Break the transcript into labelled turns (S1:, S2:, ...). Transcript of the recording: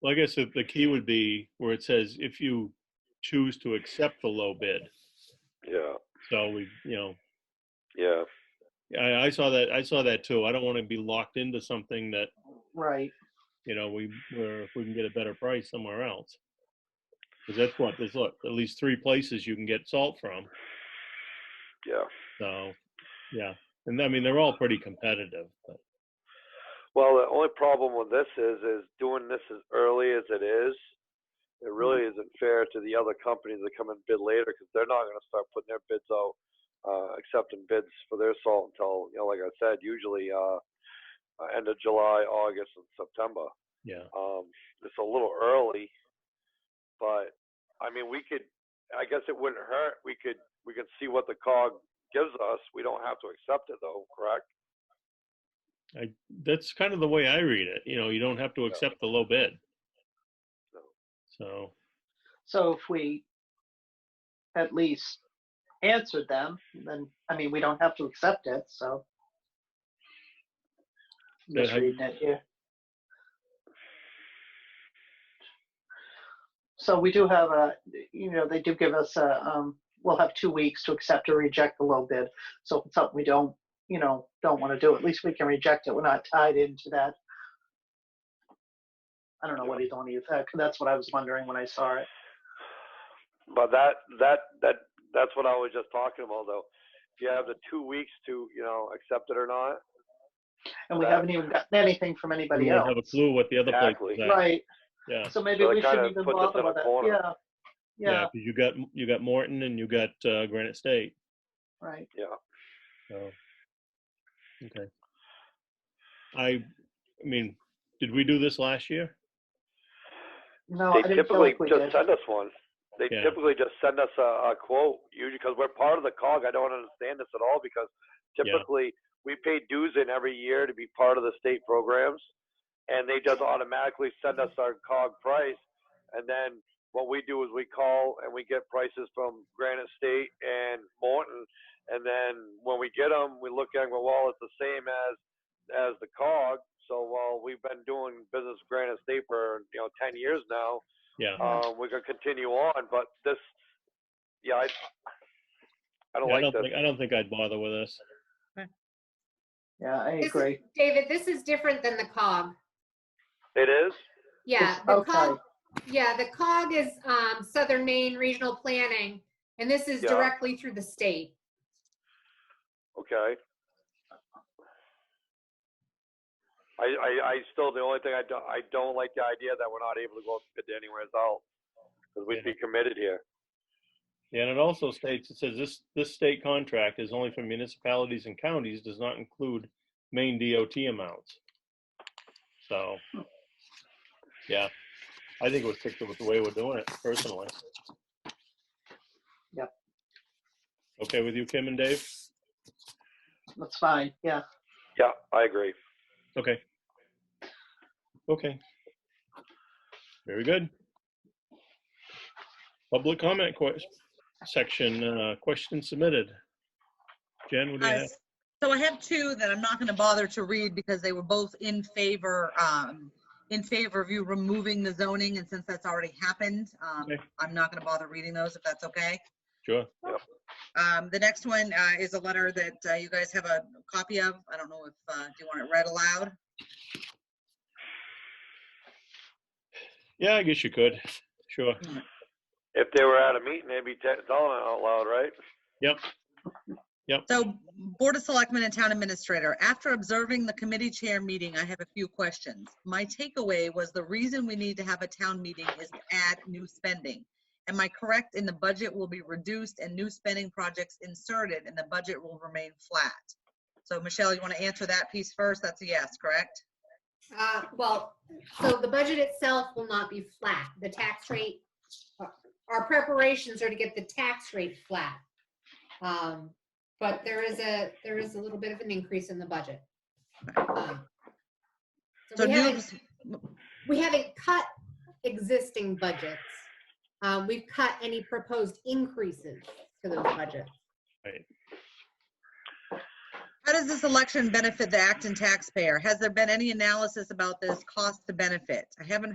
S1: Well, I guess the the key would be where it says if you choose to accept the low bid.
S2: Yeah,
S1: So we, you know,
S2: yeah,
S1: I, I saw that, I saw that too. I don't want to be locked into something that,
S3: Right.
S1: you know, we, where if we can get a better price somewhere else. Cause that's what, there's look, at least three places you can get salt from.
S2: yeah.
S1: So, yeah. And I mean, they're all pretty competitive, but
S2: Well, the only problem with this is, is doing this as early as it is, it really isn't fair to the other companies that come and bid later because they're not going to start putting their bids out, uh, accepting bids for their salt until, you know, like I said, usually uh, uh, end of July, August, and September.
S1: yeah.
S2: Um, it's a little early, but I mean, we could. I guess it wouldn't hurt. We could. We could see what the cog gives us. We don't have to accept it, though. Correct?
S1: I, that's kind of the way I read it. You know, you don't have to accept the low bid.
S2: No.
S1: So,
S3: So if we at least answered them, then, I mean, we don't have to accept it, so. I'm
S1: Yeah,
S3: Just
S1: I-
S3: reading it here. So we do have a, you know, they do give us a, um, we'll have two weeks to accept or reject the low bid. So if it's something we don't, you know, don't want to do, at least we can reject it. We're not tied into that. I don't know what he's on, either. Uh, that's what I was wondering when I saw it.
S2: But that that that that's what I was just talking about, though. If you have the two weeks to, you know, accept it or not,
S3: and we
S2: that-
S3: haven't even gotten anything from anybody
S1: we don't
S3: else.
S1: have a clue what the other place
S2: Exactly.
S1: is at.
S3: Right,
S1: Yeah.
S3: so maybe
S2: So they
S3: we
S2: kinda
S3: shouldn't even
S2: put this
S3: bother
S2: in a
S3: with it,
S2: corner.
S3: yeah,
S1: Yeah.
S3: yeah,
S1: 'cause you got, you got Morton and you got uh, Granite State.
S3: right.
S1: So, okay. I, I mean, did we do this last year?
S3: No, I
S2: they
S3: didn't feel
S2: typically
S3: like we
S2: just
S3: did.
S2: send us one. They
S1: Yeah.
S2: typically just send us a, a quote, usually because we're part of the cog. I don't understand this at all because
S1: Yeah.
S2: typically we pay dues in every year to be part of the state programs, and they just automatically send us our cog price, and then what we do is we call and we get prices from Granite State and Morton, and then when we get them, we look at 'em and go, well, it's the same as as the cog. So while we've been doing business with Granite State for you know ten years now,
S1: Yeah.
S2: um, we're gonna continue on, but this, yeah, I, I don't
S1: Yeah, I
S2: like
S1: don't
S2: this.
S1: think, I don't think I'd bother with this.
S3: Yeah, I
S4: This is-
S3: agree.
S4: David, this is different than the cog.
S2: It is.
S4: Yeah,
S3: It's
S4: the
S3: outside.
S4: cog, yeah, the cog is um, Southern Maine Regional Planning, and this is
S2: Yeah.
S4: directly through the state.
S2: Okay. I, I, I still, the only thing I don't, I don't like the idea that we're not able to go to anywhere else, because we'd be committed here.
S1: And it also states, it says this, this state contract is only for municipalities and counties, does not include main DOT amounts. So, yeah, I think it was picked up with the way we're doing it personally.
S3: Yep.
S1: Okay with you, Kim and Dave?
S3: That's fine, yeah.
S2: Yeah, I agree.
S1: Okay. Okay. Very good. Public comment ques- section, uh, question submitted. Jen, what do you
S5: Uh,
S1: have?
S5: So I have two that I'm not going to bother to read because they were both in favor, um, in favor of you removing the zoning, and since that's already happened, um,
S1: Okay.
S5: I'm not going to bother reading those if that's okay.
S1: Sure.
S5: Um, The next one uh, is a letter that uh, you guys have a copy of. I don't know if, uh, do you want it read aloud?
S1: Yeah, I guess you could. Sure.
S2: If they were at a meeting, they'd be te- telling it out loud, right?
S5: So Board of Selectmen and Town Administrator, after observing the committee chair meeting, I have a few questions. My takeaway was the reason we need to have a town meeting is to add new spending. Am I correct in the budget will be reduced and new spending projects inserted and the budget will remain flat? So Michelle, you want to answer that piece first? That's a yes, correct?
S4: Uh, Well, so the budget itself will not be flat. The tax rate, uh, our preparations are to get the tax rate flat. Um, But there is a, there is a little bit of an increase in the budget. Um,
S5: So
S4: we
S5: new,
S4: haven't- we haven't cut existing budgets. Uh, We've cut any proposed increases to those budgets.
S5: how does this election benefit the Acton taxpayer? Has there been any analysis about this cost to benefit? I haven't